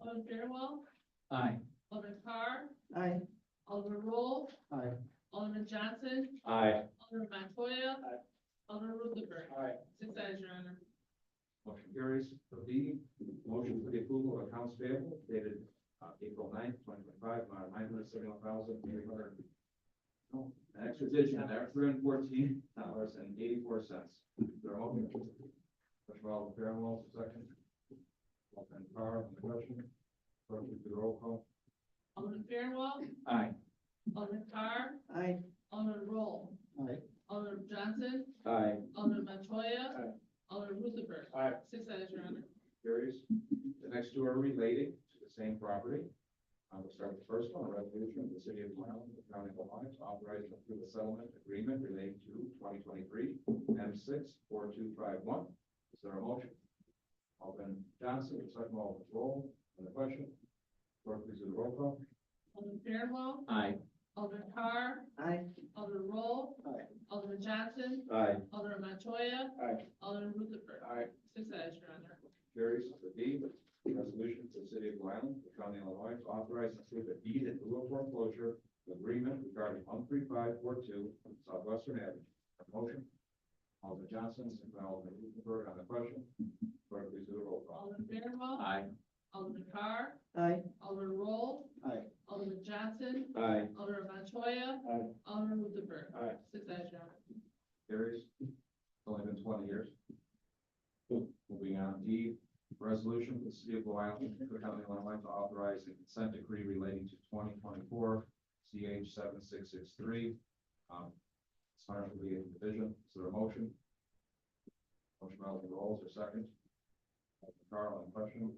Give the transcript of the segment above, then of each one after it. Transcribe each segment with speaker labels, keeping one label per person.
Speaker 1: Alderman Fairwell,
Speaker 2: Aye.
Speaker 1: Alderman Carr,
Speaker 3: Aye.
Speaker 1: Alderman Roll,
Speaker 2: Aye.
Speaker 1: Alderman Johnson,
Speaker 2: Aye.
Speaker 1: Alderman Montoya.
Speaker 2: Aye.
Speaker 1: Alderman Ruthenberg,
Speaker 2: Aye.
Speaker 1: six eyes, your honor.
Speaker 2: Motion carries. For B, motion for the approval of accounts payable dated uh, April 9th, twenty twenty-five, amount of nine hundred seventy-one thousand eight hundred. No, an extra addition there, three hundred fourteen dollars and eighty-four cents. They're all. First of all, Fairwell, second. Alderman Carr, on the question. Clerk, will you do the roll call.
Speaker 1: Alderman Fairwell,
Speaker 2: Aye.
Speaker 1: Alderman Carr,
Speaker 3: Aye.
Speaker 1: Alderman Roll,
Speaker 2: Aye.
Speaker 1: Alderman Johnson,
Speaker 2: Aye.
Speaker 1: Alderman Montoya.
Speaker 2: Aye.
Speaker 1: Alderman Ruthenberg.
Speaker 2: Aye.
Speaker 1: Six eyes, your honor.
Speaker 2: carries. The next two are related to the same property. I will start with the first one, a resolution of the city of Glen Ellyn, the county of Ohio, to authorize and approve a settlement agreement relating to twenty twenty-three M six four two five one. Is there a motion? Alderman Johnson, second Alderman Roll, on the question. Clerk, please do the roll call.
Speaker 1: Alderman Fairwell,
Speaker 2: Aye.
Speaker 1: Alderman Carr,
Speaker 3: Aye.
Speaker 1: Alderman Roll.
Speaker 2: Aye.
Speaker 1: Alderman Johnson,
Speaker 2: Aye.
Speaker 1: Alderman Montoya.
Speaker 2: Aye.
Speaker 1: Alderman Ruthenberg.
Speaker 2: Aye.
Speaker 1: Six eyes, your honor.
Speaker 2: carries the D, resolution to the city of Blue Island, the county of Illinois, to authorize and approve a deed in lieu of foreclosure agreement regarding one three five four two Southwestern Avenue. Motion, Alderman Johnson, second by Alderman Ruthenberg on the question. Clerk, please do the roll call.
Speaker 1: Alderman Fairwell.
Speaker 2: Aye.
Speaker 1: Alderman Carr,
Speaker 3: Aye.
Speaker 1: Alderman Roll.
Speaker 2: Aye.
Speaker 1: Alderman Johnson,
Speaker 2: Aye.
Speaker 1: Alderman Montoya.
Speaker 2: Aye.
Speaker 1: Alderman Ruthenberg.
Speaker 2: Aye.
Speaker 1: Six eyes, your honor.
Speaker 2: carries. It's Only been twenty years. Moving on, D, resolution for the city of Blue Island, Cook County, Illinois, to authorize a consent decree relating to twenty twenty-four CH seven six six three. Um, it's not really a division, is there a motion? Motion by Alderman Rolls, or second? Alderman Carl, on question?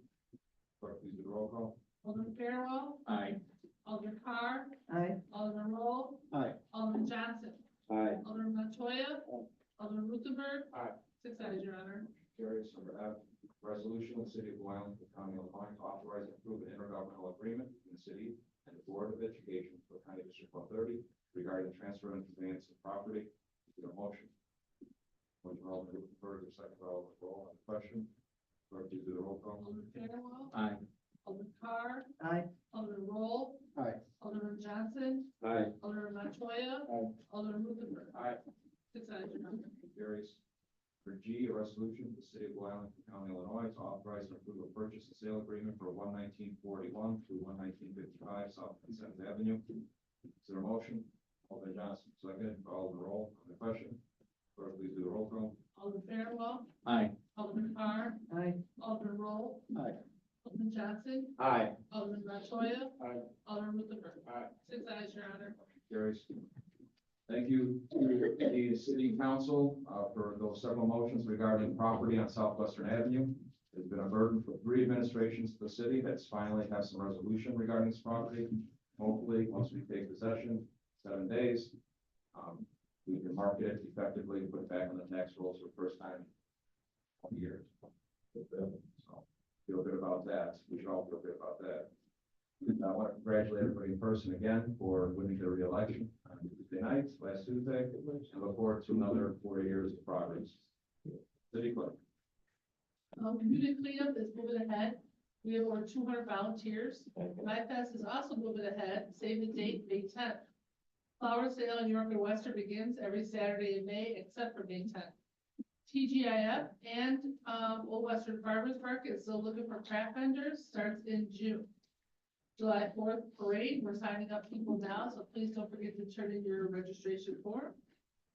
Speaker 2: Clerk, please do the roll call.
Speaker 1: Alderman Fairwell,
Speaker 2: Aye.
Speaker 1: Alderman Carr,
Speaker 3: Aye.
Speaker 1: Alderman Roll.
Speaker 2: Aye.
Speaker 1: Alderman Johnson,
Speaker 2: Aye.
Speaker 1: Alderman Montoya.
Speaker 2: Aye.
Speaker 1: Alderman Ruthenberg.
Speaker 2: Aye.
Speaker 1: Six eyes, your honor.
Speaker 2: Carries number F, resolution of the city of Blue Island, the county of Ohio, to authorize and approve an intergovernmental agreement between the city and the Board of Education for County District one thirty regarding transfer and conveyance of property. Is there a motion? Motion by Alderman Ruthenberg, a second by Alderman Roll on the question. Clerk, please do the roll call.
Speaker 1: Alderman Fairwell,
Speaker 2: Aye.
Speaker 1: Alderman Carr,
Speaker 3: Aye.
Speaker 1: Alderman Roll.
Speaker 2: Aye.
Speaker 1: Alderman Johnson,
Speaker 2: Aye.
Speaker 1: Alderman Montoya.
Speaker 2: Aye.
Speaker 1: Alderman Ruthenberg.
Speaker 2: Aye.
Speaker 1: Six eyes, your honor.
Speaker 2: Carries. For G, a resolution of the city of Blue Island, County, Illinois, to authorize and approve a purchase and sale agreement for one nineteen forty-one through one nineteen fifty-five South Consent Avenue. Is there a motion? Alderman Johnson, second, Alderman Roll, on the question. Clerk, please do the roll call.
Speaker 1: Alderman Fairwell,
Speaker 2: Aye.
Speaker 1: Alderman Carr,
Speaker 3: Aye.
Speaker 1: Alderman Roll.
Speaker 2: Aye.
Speaker 1: Alderman Johnson,
Speaker 2: Aye.
Speaker 1: Alderman Montoya.
Speaker 2: Aye.
Speaker 1: Alderman Ruthenberg.
Speaker 2: Aye.
Speaker 1: Six eyes, your honor.
Speaker 2: Carries. Thank you to the city council uh, for those several motions regarding property on Southwestern Avenue. It's been a burden for three administrations of the city that's finally have some resolution regarding this property. Hopefully, once we take possession, seven days, um, we can market it effectively, and put it back on the tax rolls for the first time in years. So, Feel good about that. We should all feel good about that. And I want to congratulate everybody in person again for winning their reelection on Tuesday night, last Tuesday. And look forward to another four years of progress. City clerk.
Speaker 1: Um, community cleanup is moving ahead. We have over two hundred volunteers. Life is also moving ahead, save the date, May tenth. Flower sale in York and Western begins every Saturday in May except for May tenth. TGIF and, um, Old Western Farmers Market is still looking for craft vendors, starts in June. July fourth parade, we're signing up people now, so please don't forget to turn in your registration form.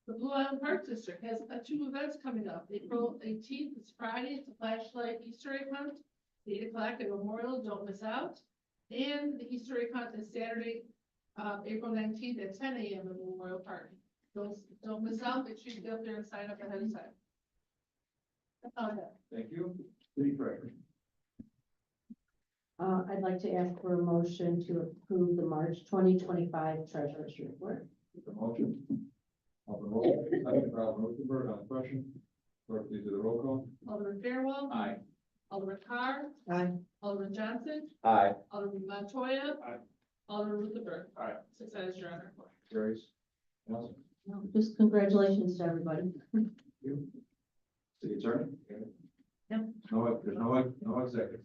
Speaker 1: The Blue Island Park District has uh, two events coming up. April eighteenth is Friday, it's a flashlight Easter egg hunt, eight o'clock at Memorial, don't miss out. And the Easter egg hunt is Saturday, uh, April nineteenth at ten AM at Memorial Park. Don't, don't miss out, make sure you get up there and sign up ahead of time. Uh, That's all I have.
Speaker 2: Thank you. City treasurer.
Speaker 4: Uh, I'd like to ask for a motion to approve the March twenty twenty-five treasurer's report.
Speaker 2: The motion. Alderman Roll, second by Alderman Ruthenberg on the question. Clerk, please do the roll call.
Speaker 1: Alderman Fairwell.
Speaker 2: Aye.
Speaker 1: Alderman Carr.
Speaker 3: Aye.
Speaker 1: Alderman Johnson.
Speaker 2: Aye.
Speaker 1: Alderman Montoya.
Speaker 2: Aye.
Speaker 1: Alderman Ruthenberg.
Speaker 2: Aye.
Speaker 1: Six eyes, your honor.
Speaker 2: Carries. Nelson.
Speaker 4: Well, Just congratulations to everybody.
Speaker 2: City attorney?
Speaker 4: No.
Speaker 2: No, there's no, no executive.